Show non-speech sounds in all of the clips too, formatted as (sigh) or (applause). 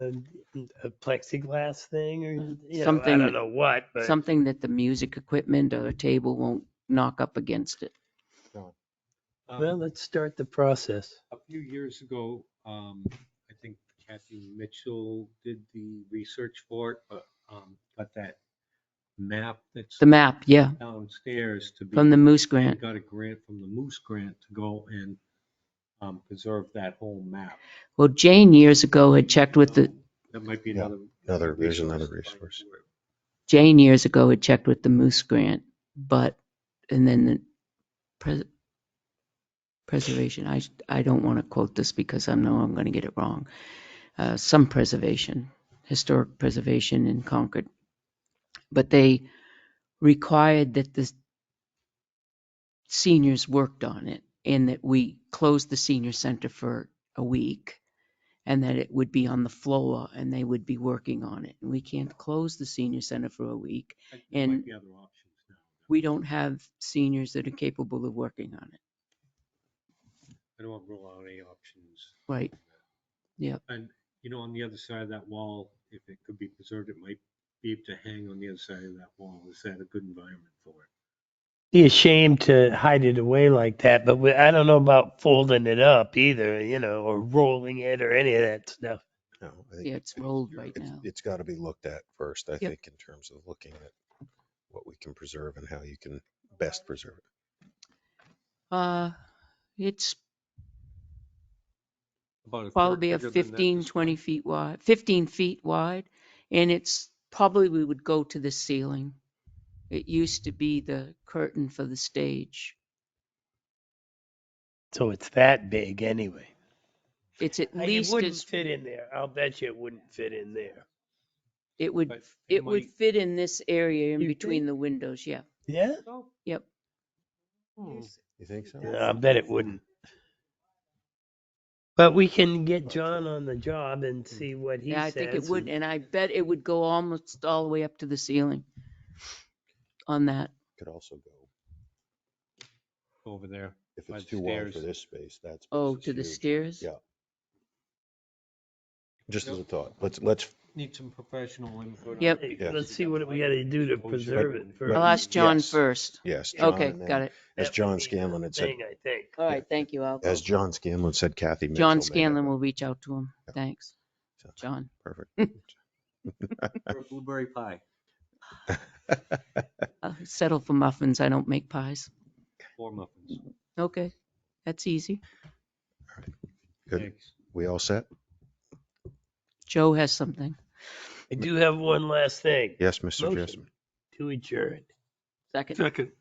a, a plexiglass thing or you know, I Something- don't know what, but Something that the music equipment or the table won't knock up against it. Um, well, let's start the process. A few years ago, um, I think Kathy Mitchell did the research for it, but, um, got that map that's The map, yeah, downstairs to be. from the Moose Grant. Got a grant from the Moose Grant to go and, um, preserve that whole map. Well, Jane years ago had checked with the, Um, That might be Yeah, another. another- there's another to find resource. for it. Jane years ago had checked with the Moose Grant, but, and then the pres- preservation, I, I don't want to quote this because I know I'm going to get it wrong. Uh, some preservation, historic preservation in Concord. But they required that the seniors worked on it and that we closed the senior center for a week and that it would be on the floor and they would be working on it. And we can't close the senior center for a week There might And- be other options now. we don't have seniors that are capable of working on it. I don't want to rule out any options. Right. And, you know, on the other side of that wall, if it could be preserved, it might be able to hang on the other side of that wall. Is that a good environment for it? Be ashamed to hide it away like that, but we, I don't know about folding it up either, you know, or rolling it or any of that stuff. No, I Yeah, think it's rolled right it's, now. it's got to be looked at first, I Yep. think, in terms of looking at what we can preserve and how you can best preserve it. Uh, it's About a quarter probably a bigger than that 15, display. 20 feet wide, 15 feet wide. And it's probably, we would go to the ceiling. It used to be the curtain for the stage. So it's that big anyway. It's at I- least it wouldn't as, fit in there. I'll bet you it wouldn't fit in there. it would, But it would might- fit in this area in You between think? the windows, yeah. Yeah? Oh. Yep. Hmm, You think so? Yeah, I bet it wouldn't. But we can get John on the job and see what he Yeah, I says. think it would, and I bet it would go almost all the way up to the ceiling on that. Could also go, Over there. if By it's the too wide for stairs. this space, that's. Oh, to the stairs? Yeah. Just as No. a thought, let's, let's, Need some professional input. on Yep. it, Hey, because Let's you see got what we light gotta do to exposure preserve and- it I'll first. ask John Yes. first. yes. John, Okay, and got then it. As That John would be the Scanlon had said, Thing, I think. All right, thank you, Al. as John Scanlon said, Kathy. John Mitchell may have Scanlon it. will reach out to him. Yeah. Thanks, So, John. Perfect. (laughs) for a Blueberry pie. I'll settle for muffins. I don't make pies. Four muffins. Okay, that's easy. Good. Thanks. We all set? Joe has something. I do have one last thing Yes, Mr. Motion. Jessamine. to adjourn. Second. Second.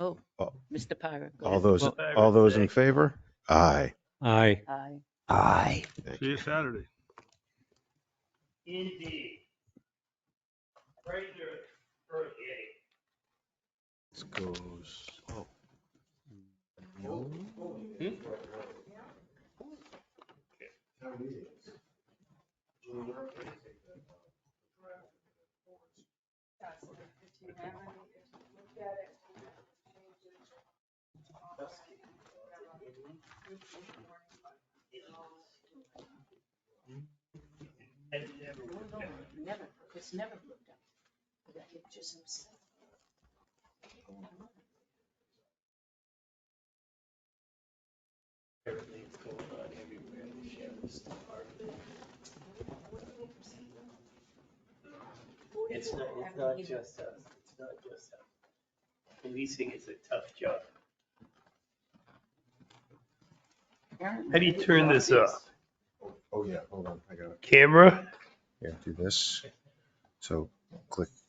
Oh, Oh. Mr. Pyra. go All ahead. those, Well, all those in thanks. favor? Aye. Aye. Aye. Aye. Thank See you Saturday. Indeed. Right there, early eight. This goes. Never, it's never looked up. The pictures themselves. Everything's going on everywhere, the sheriff's department. It's not, it's not just us, it's not just us. Policing is a tough job. How do you turn this off? Oh, yeah, hold on, I got it. Camera? Yeah, do this. So click